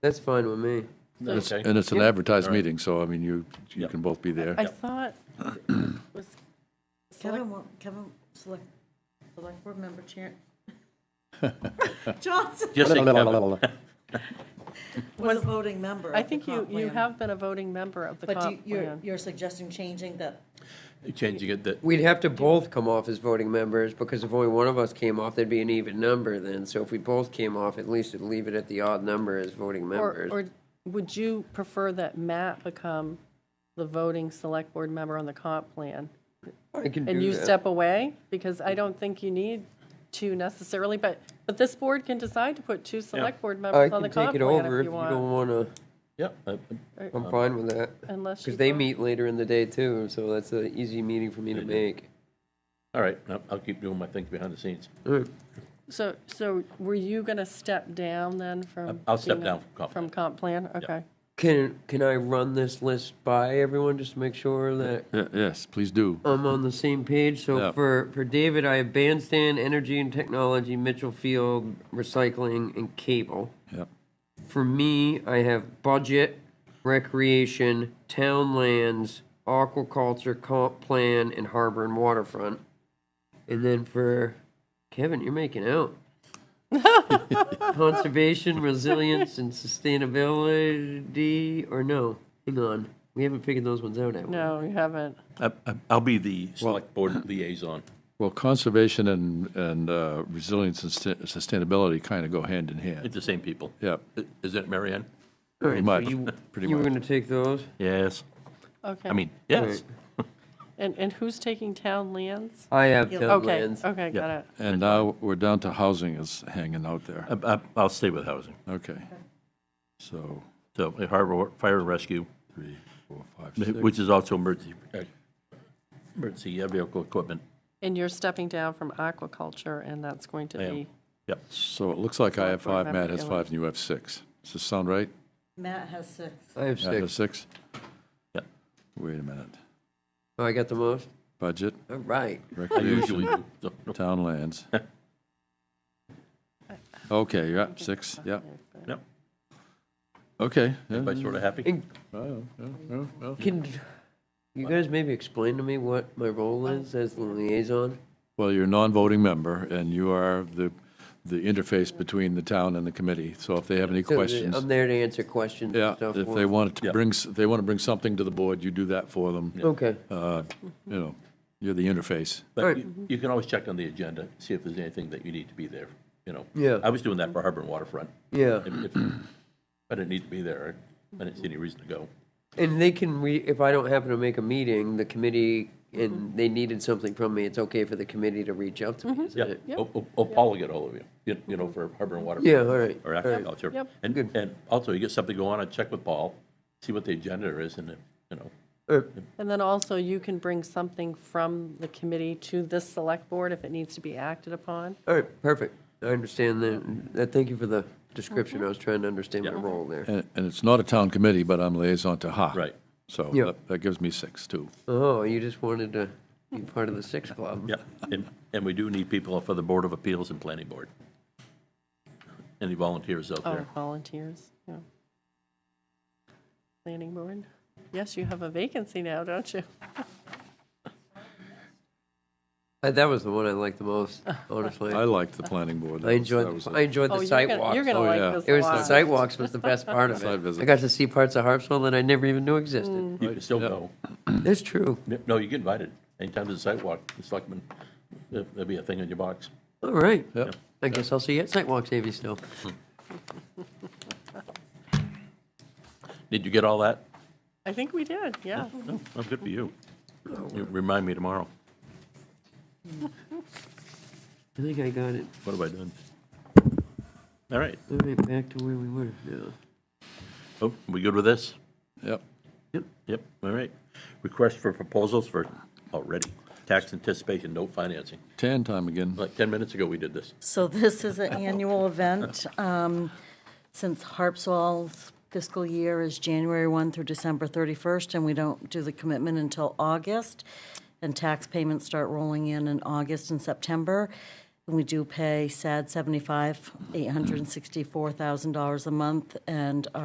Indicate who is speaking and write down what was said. Speaker 1: That's fine with me.
Speaker 2: And it's-
Speaker 3: Okay.
Speaker 2: And it's an advertised
Speaker 3: All right.
Speaker 2: meeting, so I mean, you, you
Speaker 3: Yep.
Speaker 2: can both be there.
Speaker 4: I thought it was select,
Speaker 5: Kevin, wa- Kevin, select,
Speaker 4: select
Speaker 5: board member chair. Johnson
Speaker 3: Just say Kevin.
Speaker 5: was a voting member of
Speaker 4: I
Speaker 5: the
Speaker 4: think you,
Speaker 5: comp
Speaker 4: you
Speaker 5: plan.
Speaker 4: have been a voting member of the
Speaker 5: But you-
Speaker 4: comp
Speaker 5: you're,
Speaker 4: plan.
Speaker 5: you're suggesting changing that,
Speaker 3: Changing it that,
Speaker 1: We'd have to both come off as voting members because if only one of us came off, there'd be an even number then. So if we both came off, at least it'd leave it at the odd number as voting
Speaker 4: Or,
Speaker 1: members.
Speaker 4: or would you prefer that Matt become the voting select board member on the comp plan?
Speaker 1: I can
Speaker 4: And
Speaker 1: do
Speaker 4: you
Speaker 1: that.
Speaker 4: step away? Because I don't think you need two necessarily, but, but this board can decide to put two select board
Speaker 1: I
Speaker 4: members on the
Speaker 1: can
Speaker 4: comp
Speaker 1: take it
Speaker 4: plan
Speaker 1: over
Speaker 4: if
Speaker 1: if
Speaker 4: you
Speaker 1: you don't
Speaker 4: want.
Speaker 1: want to.
Speaker 3: yeah, uh,
Speaker 1: I'm fine with that.
Speaker 4: Unless you
Speaker 1: Because they
Speaker 4: want-
Speaker 1: meet later in the day too, so that's an easy meeting for me to make.
Speaker 3: all right, uh, I'll- I'll keep doing my thing behind the scenes.
Speaker 4: So, so were you going to step down then from?
Speaker 3: I'll step
Speaker 4: being a-
Speaker 3: down from comp plan.
Speaker 4: From comp plan? Okay.
Speaker 1: Can, can I run this list by everyone just to make sure that
Speaker 2: Ye- Yes, please do.
Speaker 1: I'm on the same page. So
Speaker 2: Yeah.
Speaker 1: for, for David, I have bandstand, energy and technology, Mitchell Field, recycling, and cable.
Speaker 2: Yep.
Speaker 1: For me, I have budget, recreation, town lands, aquaculture, comp plan, and harbor and waterfront. And then for Kevin, you're making out. Conservation, resilience, and sustainability, or no? Hang on, we haven't figured those ones out yet.
Speaker 4: No, you haven't.
Speaker 3: I- I- Uh, I'll be the select board liaison.
Speaker 2: Well, conservation and, and uh, resilience and sus- sustainability kind of go hand in hand.
Speaker 3: It's the same people.
Speaker 2: Yep,
Speaker 3: I- Is it Mary Ann?
Speaker 1: All right, so
Speaker 2: pretty much,
Speaker 1: you-
Speaker 2: pretty
Speaker 1: You were
Speaker 2: much.
Speaker 1: gonna take those?
Speaker 3: Yes.
Speaker 4: Okay.
Speaker 3: I mean, yes.
Speaker 1: Right.
Speaker 4: And, and who's taking town lands?
Speaker 1: I have
Speaker 5: Yep.
Speaker 1: town
Speaker 4: Okay,
Speaker 1: lands.
Speaker 4: okay, got
Speaker 3: Yeah.
Speaker 4: it.
Speaker 2: And now we're down to housing is hanging out there.
Speaker 3: I- I- I'll stay with housing.
Speaker 2: Okay. So,
Speaker 3: So uh, harbor, fire and rescue,
Speaker 2: three, four, five, six.
Speaker 3: which is also emergency, uh, emergency uh, vehicle equipment.
Speaker 4: And you're stepping down from aquaculture, and that's going to
Speaker 3: I am.
Speaker 4: be,
Speaker 3: Yep.
Speaker 2: So it looks like I have five, Matt has
Speaker 4: Remember,
Speaker 2: five, and you have six. Does this sound right?
Speaker 5: Matt has six.
Speaker 1: I have
Speaker 2: Matt has
Speaker 1: six.
Speaker 2: six?
Speaker 3: Yep.
Speaker 2: Wait a minute.
Speaker 1: Oh, I got the most?
Speaker 2: Budget,
Speaker 1: All right.
Speaker 3: I usually
Speaker 2: recreation,
Speaker 3: do. So, no,
Speaker 2: town lands. Okay, you're up, six, yeah.
Speaker 3: Yep.
Speaker 2: Okay. yeah,
Speaker 3: Everybody sort of happy?
Speaker 1: And
Speaker 2: well, yeah, well, well.
Speaker 1: Can you guys maybe explain to me what my role is as the liaison?
Speaker 2: Well, you're a non-voting member, and you are the, the interface between the town and the committee. So if they have any
Speaker 1: So the-
Speaker 2: questions,
Speaker 1: I'm there to answer questions
Speaker 2: yeah,
Speaker 1: and stuff.
Speaker 2: if
Speaker 1: for
Speaker 2: they
Speaker 1: them.
Speaker 2: want to
Speaker 3: Yeah.
Speaker 2: bring, s- they want to bring something to the board, you do that for them.
Speaker 1: Okay,
Speaker 2: Uh, You know, you're the interface.
Speaker 3: But
Speaker 1: Right.
Speaker 3: you- you can always check on the agenda, see if there's anything that you need to be there, you know?
Speaker 1: Yeah.
Speaker 3: I was doing that for Harbor and Waterfront.
Speaker 1: yeah.
Speaker 3: If- if- I didn't need to be there. I didn't see any reason to go.
Speaker 1: And they can, re- if I don't happen to make a meeting, the committee, and they needed something from me, it's okay for the committee to reach out to me, isn't
Speaker 3: Yeah,
Speaker 1: it?
Speaker 4: Yep.
Speaker 3: Oh, oh, oh, Paul will get hold of you, you- you know, for Harbor and Waterfront.
Speaker 1: Yeah, all right,
Speaker 3: Or
Speaker 1: all right.
Speaker 3: agriculture.
Speaker 4: Yep.
Speaker 3: And,
Speaker 1: Good.
Speaker 3: and also, you get something going on, I'd check with Paul, see what the agenda is, and, if, you know,
Speaker 1: Uh,
Speaker 4: and then also you can bring something from the committee to this select board if it needs to be acted upon.
Speaker 1: All right, perfect. I understand that. Uh, Thank you for the description. I was trying to understand my
Speaker 3: Yeah.
Speaker 1: role there.
Speaker 2: And, and it's not a town committee, but I'm liaison to HA.
Speaker 3: Right.
Speaker 2: So
Speaker 1: Yeah.
Speaker 2: that- that gives me six, too.
Speaker 1: Oh, you just wanted to be part of the six club?
Speaker 3: yeah. And, and we do need people for the Board of Appeals and Planning Board. Any volunteers out
Speaker 4: Oh,
Speaker 3: there?
Speaker 4: volunteers, yeah. Planning board. Yes, you have a vacancy now, don't you?
Speaker 1: Uh, That was the one I liked the most, honestly.
Speaker 2: I liked the planning board. That
Speaker 1: I
Speaker 2: was-
Speaker 1: enjoyed,
Speaker 2: that was
Speaker 1: the-
Speaker 2: a-
Speaker 1: I enjoyed
Speaker 4: Oh,
Speaker 1: the
Speaker 4: you're
Speaker 1: site
Speaker 4: gonna-
Speaker 1: walks.
Speaker 4: You're going to
Speaker 2: Oh, yeah.
Speaker 4: like this
Speaker 1: It was the
Speaker 4: lot.
Speaker 1: site walks was the best part of
Speaker 2: Site
Speaker 1: it.
Speaker 2: visits.
Speaker 1: I got to see parts of Harpswell that I never even knew existed.
Speaker 4: Mm. Oh.
Speaker 3: You can still go.
Speaker 1: That's true.
Speaker 3: No, you get invited. Anytime there's a sidewalk, the selectmen, there- there'll be a thing in your box.
Speaker 1: All right.
Speaker 2: Yep.
Speaker 1: I guess I'll see you at site walks, Amy Snow.
Speaker 3: Did you get all that?
Speaker 4: I think we did, yeah.
Speaker 3: No, well, good for you.
Speaker 1: Oh.
Speaker 3: You Remind me tomorrow.
Speaker 1: I think I got it.
Speaker 3: What have I done? All right.
Speaker 1: All right, back to where we were now.
Speaker 3: Oh, we good with this?
Speaker 2: Yep.
Speaker 3: Yep, yep, all right. Request for proposals for, already, tax anticipation note financing.
Speaker 2: Tan time again.
Speaker 3: Like 10 minutes ago, we did this.
Speaker 5: So this is an annual event. um, Since Harpswell's fiscal year is January 1 through December 31st, and we don't do the commitment until August, and tax payments start rolling in in August and September, And we do pay SAD 75, $864,000 a month, and